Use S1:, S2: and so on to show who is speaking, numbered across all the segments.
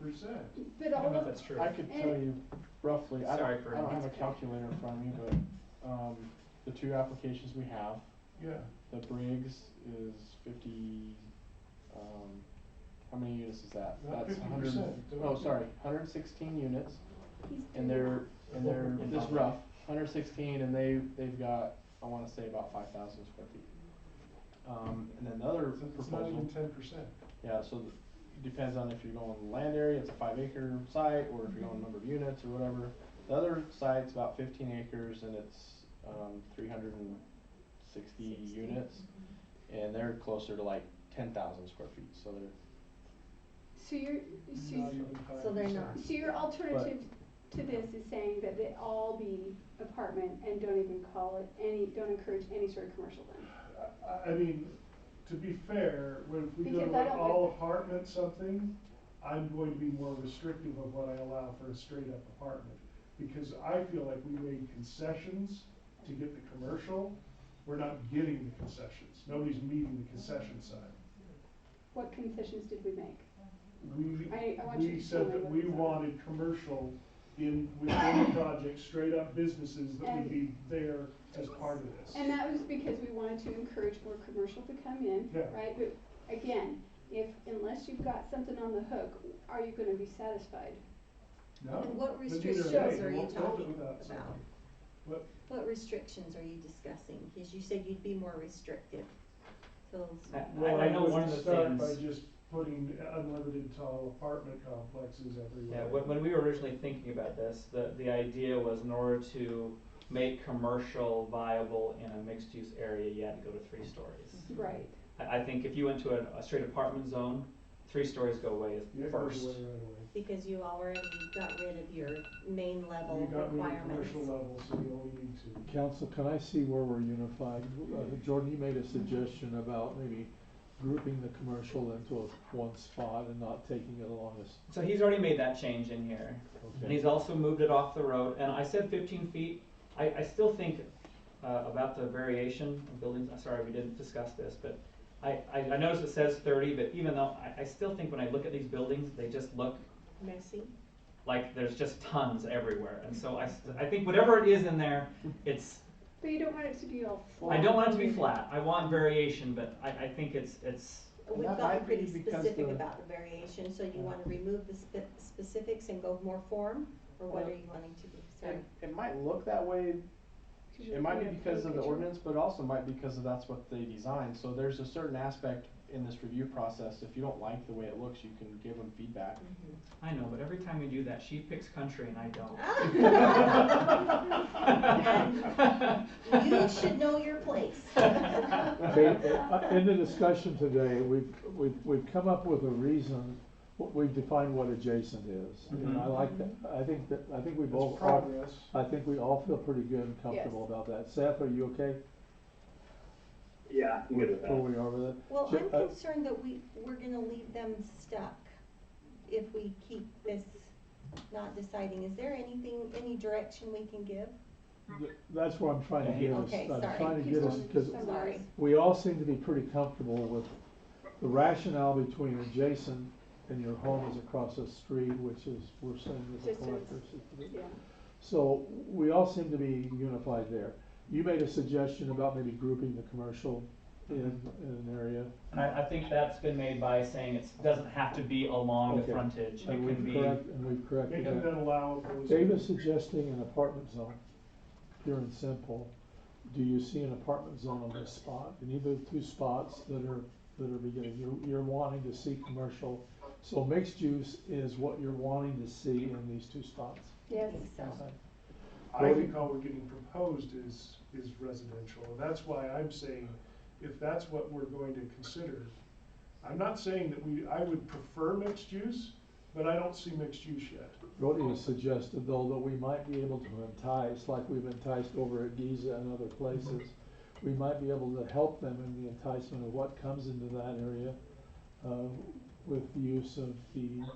S1: percent.
S2: But
S3: I don't
S2: all
S3: know if
S2: of,
S3: that's true.
S4: I could tell you roughly, I
S3: Sorry
S4: don't,
S3: for-
S4: I don't have a calculator in front of me, but, um, the two applications we have,
S1: Yeah,
S4: the Briggs is fifty, um, how many units is that?
S1: Not
S4: That's 100
S1: 50%,
S4: Oh,
S1: don't-
S4: sorry, hundred and sixteen units,
S2: he's doing
S4: and they're, and they're,
S3: In
S4: this
S3: public.
S4: rough, hundred sixteen, and they, they've got, I wanna say about five thousand square feet. Um, and then the other
S1: it's it's not even
S4: proposal,
S1: ten percent.
S4: yeah, so th- it depends on if you're going land area, it's a five acre site, or if you're going number of units or whatever. The other site's about fifteen acres and it's, um, three hundred and sixty
S2: Sixty.
S4: units, and they're closer to like ten thousand square feet, so they're,
S2: So your, so,
S1: Not even
S5: So they're
S1: 5%.
S5: not.
S2: so your alternative to this is saying that they all be apartment and don't even call it any, don't encourage any sort of commercial then?
S1: I, I mean, to be fair, when we go
S2: Because
S1: to
S2: I
S1: an
S2: don't
S1: all
S2: like-
S1: apartment something, I'm going to be more restrictive of what I allow for a straight up apartment. Because I feel like we made concessions to get the commercial, we're not getting the concessions, nobody's meeting the concession side.
S2: What concessions did we make?
S1: We,
S2: I- I want you
S1: we
S2: to
S1: said
S2: tell me
S1: that
S2: what
S1: we
S2: it's on.
S1: wanted commercial in, within the project, straight up businesses that
S2: And-
S1: would be there as part of this.
S2: And that was because we wanted to encourage more commercial to come in,
S1: Yeah.
S2: right? But again, if, unless you've got something on the hook, are you gonna be satisfied?
S1: No.
S5: And what
S1: but neither
S5: restrictions
S1: they.
S5: are you
S1: Won't build it
S5: talking
S1: without
S5: about?
S1: something. What,
S5: What restrictions are you discussing? Because you said you'd be more restrictive. So,
S3: I, I
S1: Well,
S3: I know
S1: would
S3: one of the
S1: start By
S3: things,
S1: just putting unlimited tall apartment complexes
S3: yeah,
S1: everywhere.
S3: when, when we were originally thinking about this, the, the idea was in order to make commercial viable in a mixed-use area, you had to go to three stories.
S2: Right.
S3: I, I think if you went to a, a straight apartment zone, three stories go away
S1: Yeah,
S3: first.
S1: everywhere right away.
S5: because you already got rid of your main level
S1: We got rid of
S5: requirements.
S1: commercial level, so we only need two.
S6: Council, can I see where we're unified? Uh, Jordan, you made a suggestion about maybe grouping the commercial into a- one spot and not taking it along this.
S3: So he's already made that change in here, and he's also moved it off the road, and I said fifteen feet, I, I still think, uh, about the variation of buildings, I'm sorry, we didn't discuss this, but I, I, I noticed it says thirty, but even though, I, I still think when I look at these buildings, they just look
S5: Messy.
S3: like there's just tons everywhere, and so I, s- I think whatever it is in there, it's,
S2: But you don't want it to be all
S3: I don't want it to be flat, I want variation, but I, I think it's, it's,
S4: And
S5: We've
S4: that
S5: gotten
S4: might be
S5: pretty
S4: because
S5: specific
S4: the-
S5: about the variation, so you wanna remove the spe- specifics and go more form? Or what
S4: Well,
S5: are you wanting to do? Sorry.
S4: it, it might look that way It might be because of the ordinance, but it also might be because of that's what they designed, so there's a certain aspect in this review process, if you don't like the way it looks, you can give them feedback.
S3: I know, but every time we do that, she picks country and I don't.
S5: Mm-hmm. You should know your place.
S6: Okay, uh, In the discussion today, we've, we've, we've come up with a reason, w- we've defined what adjacent is. And I like that, I think that, I think we
S1: It's
S6: both, all-
S1: progress.
S6: I think we all feel pretty good and comfortable
S2: Yes.
S6: about that. Seth, are you okay?
S7: Yeah, I'm good with
S6: Where
S7: that.
S6: we are with it?
S5: Well,
S6: Ju-
S5: I'm
S6: uh,
S5: concerned that we, we're gonna leave them stuck if we keep this not deciding. Is there anything, any direction we can give?
S6: Th- That's where I'm trying to get us,
S5: Okay,
S6: I'm
S5: sorry.
S6: trying to get us, because
S2: Sorry.
S5: Sorry.
S6: we all seem to be pretty comfortable with the rationale between adjacent and your home is across the street, which is, we're saying is
S2: Just
S6: a
S2: as-
S6: collector's.
S2: Yeah,
S6: So we all seem to be unified there. You made a suggestion about maybe grouping the commercial in,
S3: Mm-hmm.
S6: in an area.
S3: And I, I think that's been made by saying it doesn't have to be along the
S6: Okay.
S3: frontage, it
S6: And
S3: can
S6: we've
S3: be,
S6: correct, and we've corrected
S1: Making
S6: that.
S1: that allowable. is-
S6: Dave is suggesting an apartment zone, pure and simple. Do you see an apartment zone on this spot? In either of the two spots that are, that are beginning, you're, you're wanting to see commercial. So mixed use is what you're wanting to see in these two spots.
S2: yes.
S5: So,
S1: I think all we're getting proposed is, is residential, and that's why I'm saying, if that's what we're going to consider, I'm not saying that we, I would prefer mixed use, but I don't see mixed use yet.
S6: Rodney has suggested though that we might be able to entice, like we've enticed over at Giza and other places, we might be able to help them in the enticement of what comes into that area, uh, with the use of the, uh,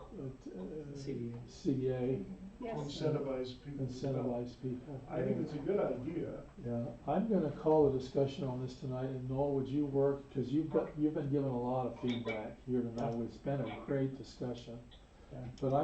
S6: t- uh,
S3: CDA.
S6: CDA,
S2: Yes.
S1: Incentivize people. to develop.
S6: incentivize people.
S1: I think it's a good idea.
S6: Yeah, I'm gonna call a discussion on this tonight, and Noel, would you work, cause you've got, you've been given a lot of feedback here tonight, it's been a great discussion.
S3: Yeah.
S6: But I